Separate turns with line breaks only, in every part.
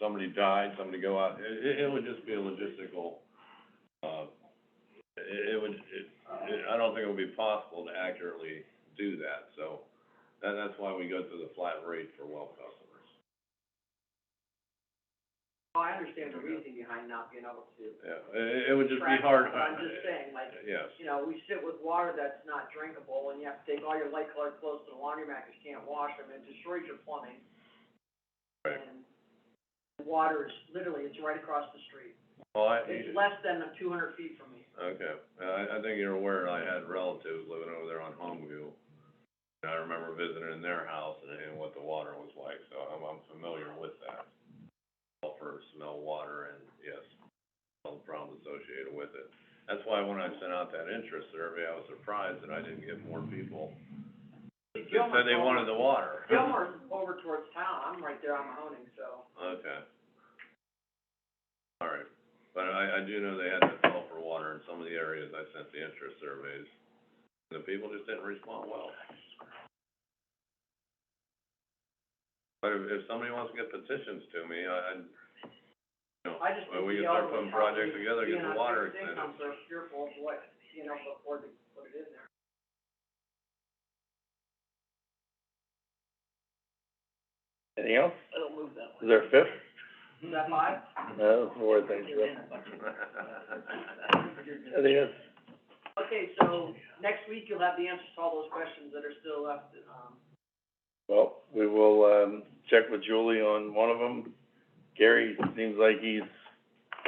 somebody died, somebody go out, it, it, it would just be a logistical, uh, it, it would, it, it, I don't think it would be possible to accurately do that, so, that, that's why we go to the flat rate for well customers.
Oh, I understand the reasoning behind not being able to
Yeah, it, it would just be
track,
hard.
but I'm just saying, like,
Yes,
you know, we sit with water that's not drinkable, and you have to take all your light colored clothes to the laundromat, 'cause you can't wash them, and it destroys your plumbing.
Right.
And the Water is, literally, it's right across the street.
well, I,
It's less than two hundred feet from me.
Okay, Uh, I, I think you're aware, I had relatives living over there on Homeview. And I remember visiting in their house and, and what the water was like, so I'm, I'm familiar with that. Sulfur, smell water, and yes, all the problems associated with it. That's why when I sent out that interest survey, I was surprised that I didn't get more people that said they wanted the water.
Gilmore's over towards town, I'm right there on Mahoning, so.
Okay. All right, but I, I do know they had to call for water in some of the areas I sent the interest surveys. The people just didn't respond well. But if, if somebody wants to get petitions to me, I, I, you know,
I just
well, we
think
can
the
start
elderly
putting projects
probably
together, get
being
the
on
water
fixed
extended.
income, they're fearful of what, you know, before they put it in there.
Anything else?
I don't move that way.
Is there a fifth?
Is that five?
No, more than I think that's,
Okay, so next week you'll have the answers to all those questions that are still left, um,
well, we will, um, check with Julie on one of them. Gary seems like he's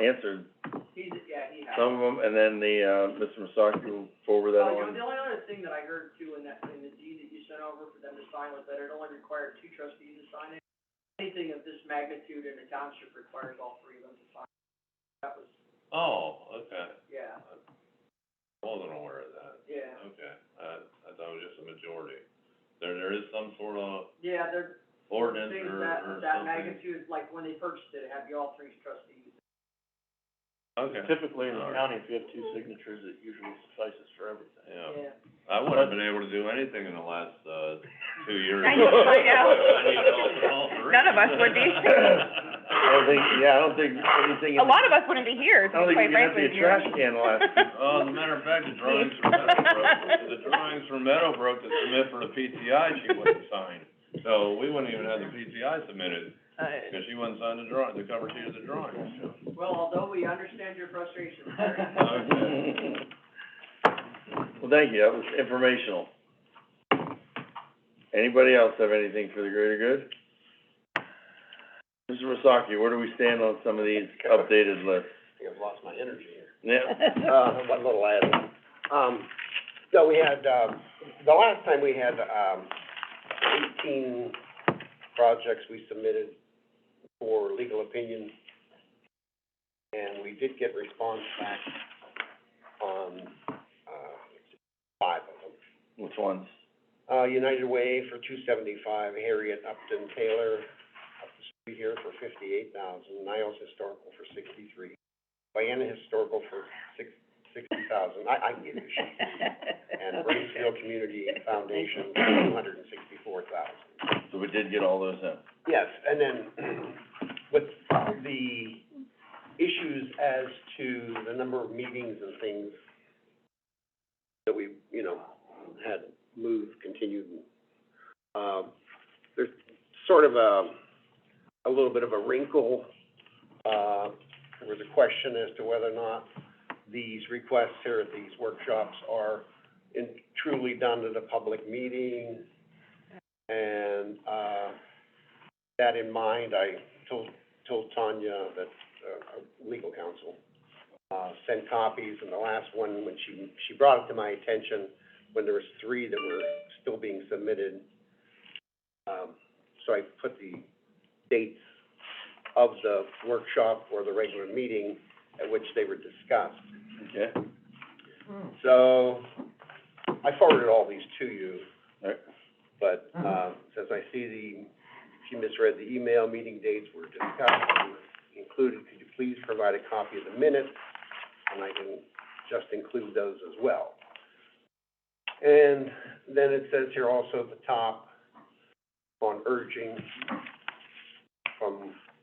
answered
he's, yeah, he has.
some of them, and then the, uh, Mr. Masaki will forward that
Oh, you know,
on.
the only other thing that I heard too in that, in the deed that you sent over for them to sign was that it only required two trustees to sign it. Anything of this magnitude in a township requires all three of them to sign. That was,
Oh, okay,
yeah,
wasn't aware of that,
yeah,
okay, uh, I thought it was just a majority. There, there is some sort of
yeah, there,
ordinance
things
or,
that,
or something.
that magnitude, like when they purchased it, it had to be all three trustees.
Okay.
Typically
in the
county, if you have two signatures, it usually suffices for everything.
Yeah, I wouldn't have been able to do anything in the last, uh, two years.
I know, I
I need all- all
know.
three.
None of us would be.
I don't think, yeah, I don't think anything. in-
A lot of us wouldn't be here,
I don't think
quite
we can
frankly.
empty a trash can last-
Oh, as a matter of fact, the drawings from Meadowbrook, the drawings from Meadowbrook to submit for the PTI, she wouldn't sign. So we wouldn't even have the PTI submitted, because she wouldn't sign the drawing, the cover sheet of the drawings.
Well, although we understand your frustration, Larry.
Well, thank you, that was informational. Anybody else have anything for the greater good? Mr. Masaki, where do we stand on some of these updated lists?
think I've lost my energy here.
Yeah,
Uh, one little ad. Um, so we had, uh, the last time we had, um, eighteen projects we submitted for legal opinion. And we did get response back on, uh, five of them.
which ones?
Uh, United Way for two seventy-five, Harriet Upton Taylor up the street here for fifty-eight thousand, Niles Historical for sixty-three, Vienna Historical for six, sixty thousand, I, I can give you a sheet. And Bracefield Community Foundation for two hundred and sixty-four thousand.
So we did get all those in.
Yes, and then with the issues as to the number of meetings and things that we, you know, had moved, continued, um, there's sort of a, a little bit of a wrinkle. Uh, there was a question as to whether or not these requests here at these workshops are in, truly done at a public meeting. And, uh, that in mind, I told, told Tanya that, uh, our legal counsel, uh, sent copies, and the last one, when she, she brought it to my attention, when there was three that were still being submitted. Um, so I put the dates of the workshop or the regular meeting at which they were discussed.
Okay.
So, I forwarded all these to you.
Right.
But, uh, since I see the, she misread the email, meeting dates were discussed and included, could you please provide a copy of the minutes? And I can just include those as well. And then it says here also at the top, on urging from